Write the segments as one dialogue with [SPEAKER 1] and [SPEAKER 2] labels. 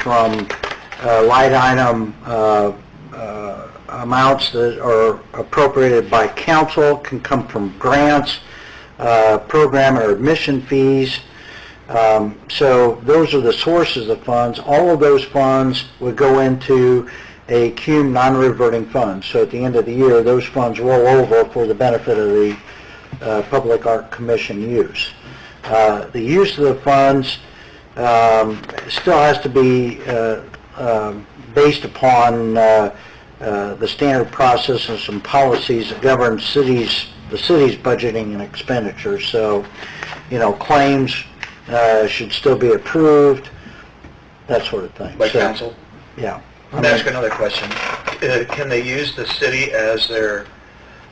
[SPEAKER 1] from uh, light item uh, uh, amounts that are appropriated by council, can come from grants, uh, program or admission fees. Um, So those are the sources of funds. All of those funds would go into a CUME non-reverting fund. So at the end of the year, those funds roll over for the benefit of the uh, Public Art Commission use. Uh, The use of the funds um, still has to be uh, um, based upon uh, uh, the standard process and some policies that govern cities, the city's budgeting and expenditures. So, you know, claims uh, should still be approved, that sort of thing.
[SPEAKER 2] by
[SPEAKER 1] So,
[SPEAKER 2] council.
[SPEAKER 1] Yeah.
[SPEAKER 2] Let me ask another question. Uh, Can they use the city as their,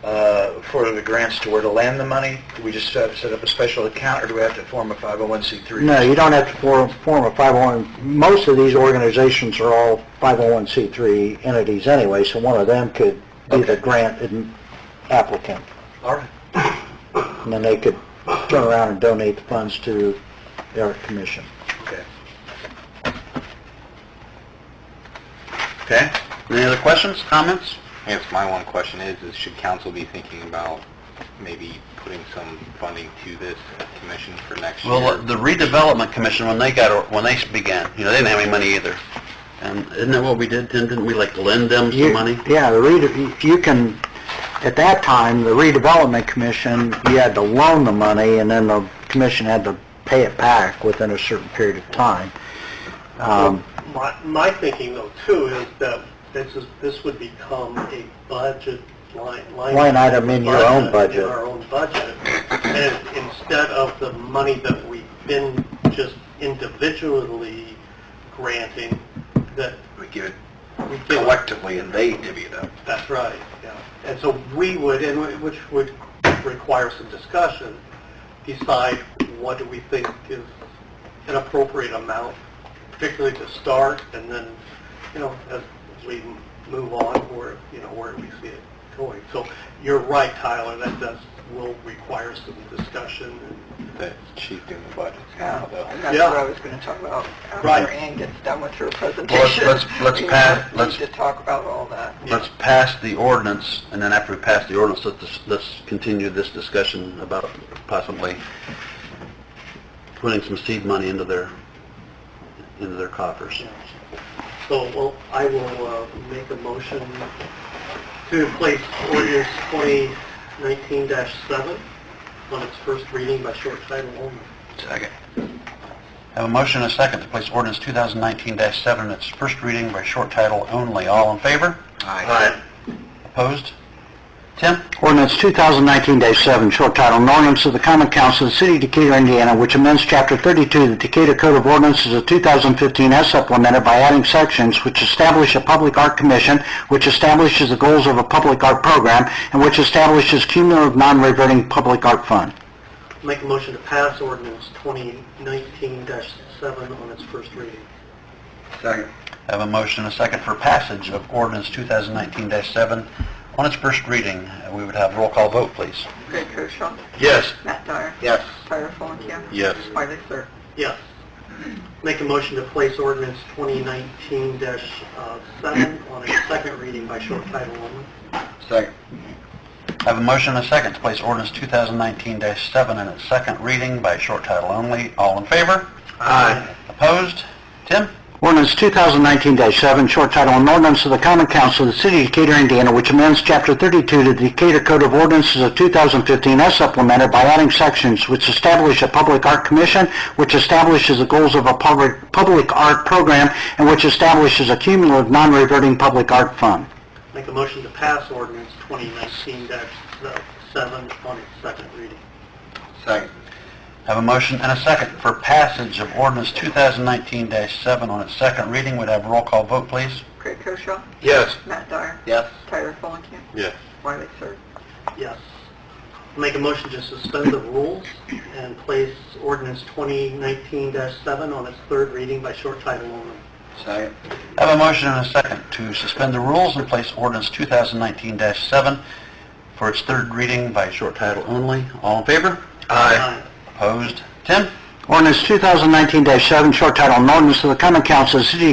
[SPEAKER 2] uh, for the grants to where to land the money? Do we just set set up a special account, or do we have to form a 501c3?
[SPEAKER 1] No, you don't have to form, form a 501, most of these organizations are all 501c3 entities anyway, so one of them could be the
[SPEAKER 2] Okay.
[SPEAKER 1] grant ad- applicant,
[SPEAKER 2] All right.
[SPEAKER 1] and then they could turn around and donate the funds to the art commission.
[SPEAKER 2] Okay.
[SPEAKER 3] Okay. Any other questions, comments? I guess my one question is, is should council be thinking about maybe putting some funding to this commission for next year?
[SPEAKER 4] Well, the redevelopment commission, when they got, when they began, you know, they didn't have any money either. And isn't that what we did, Tim? Didn't we like lend them
[SPEAKER 1] You-
[SPEAKER 4] some money?
[SPEAKER 1] Yeah, the rede, you can, at that time, the redevelopment commission, you had to loan the money, and then the commission had to pay it back within a certain period of time. Um,
[SPEAKER 5] My, my thinking though too is that this is, this would become a budget line.
[SPEAKER 1] Line item in your own budget.
[SPEAKER 5] In our own budget. And instead of the money that we've been just individually granting, that
[SPEAKER 2] We give it
[SPEAKER 5] we give
[SPEAKER 2] collectively, and they divvy it up.
[SPEAKER 5] That's right, yeah. And so we would, and wh- which would require some discussion, decide what do we think is an appropriate amount, particularly to start, and then, you know, as as we move on, where, you know, where we see it going. So you're right, Tyler, that does, will require some discussion.
[SPEAKER 3] That she's doing the budgets now, though.
[SPEAKER 6] That's
[SPEAKER 5] Yeah.
[SPEAKER 6] what I was going to talk about
[SPEAKER 5] Right.
[SPEAKER 6] after Ann gets done with her
[SPEAKER 4] let's-
[SPEAKER 6] presentation.
[SPEAKER 4] let's- let's
[SPEAKER 6] We
[SPEAKER 4] pass-
[SPEAKER 6] need
[SPEAKER 4] let's-
[SPEAKER 6] to talk about all that.
[SPEAKER 4] Let's pass the ordinance, and then after we pass the ordinance, let's, let's continue this discussion about possibly putting some seed money into their, into their coffers.
[SPEAKER 5] So, well, I will uh, make a motion to place ordinance 2019-7 on its first reading by short title only.
[SPEAKER 4] Second. Have a motion and a second to place ordinance 2019-7 its first reading by short title only. All in favor?
[SPEAKER 2] Aye.
[SPEAKER 4] Opposed? Tim?
[SPEAKER 1] Ordinance 2019-7, short title, an ordinance of the common council of the city of Decatur, Indiana, which amends chapter 32 of the Decatur Code of Ordinances of 2015 as supplemented by adding sections which establish a public art commission, which establishes the goals of a public art program, and which establishes cumulative non-reverting public art fund.
[SPEAKER 5] Make a motion to pass ordinance 2019-7 on its first reading.
[SPEAKER 2] Second.
[SPEAKER 4] Have a motion and a second for passage of ordinance 2019-7 on its first reading. Uh, We would have roll call vote, please.
[SPEAKER 6] Greg Koshaw,
[SPEAKER 4] Yes.
[SPEAKER 6] Matt Dyer,
[SPEAKER 4] Yes.
[SPEAKER 6] Tyra Fulenkamp.
[SPEAKER 4] Yes.
[SPEAKER 6] Wiley Sir.
[SPEAKER 5] Yes. Make a motion to place ordinance 2019-7 uh, on its second reading by short title only.
[SPEAKER 2] Second.
[SPEAKER 4] Have a motion and a second to place ordinance 2019-7 in its second reading by short title only. All in favor?
[SPEAKER 2] Aye.
[SPEAKER 4] Opposed? Tim?
[SPEAKER 1] Ordinance 2019-7, short title, an ordinance of the common council of the city of Decatur, Indiana, which amends chapter 32 to the Decatur Code of Ordinances of 2015 as supplemented by adding sections which establish a public art commission, which establishes the goals of a public, public art program, and which establishes a cumulative non-reverting public art fund.
[SPEAKER 5] Make a motion to pass ordinance 2019-7 on its second reading.
[SPEAKER 2] Second.
[SPEAKER 4] Have a motion and a second for passage of ordinance 2019-7 on its second reading. Would have roll call vote, please.
[SPEAKER 6] Greg Koshaw,
[SPEAKER 2] Yes.
[SPEAKER 6] Matt Dyer,
[SPEAKER 4] Yes.
[SPEAKER 6] Tyra Fulenkamp.
[SPEAKER 4] Yes.
[SPEAKER 6] Wiley Sir.
[SPEAKER 5] Yes. Make a motion to suspend the rules and place ordinance 2019-7 on its third reading by short title only.
[SPEAKER 2] Second.
[SPEAKER 4] Have a motion and a second to suspend the rules and place ordinance 2019-7 for its third reading by short title only. All in favor?
[SPEAKER 5] Aye.
[SPEAKER 4] Opposed? Tim?
[SPEAKER 1] Ordinance 2019-7, short title, an ordinance of the common council of the city of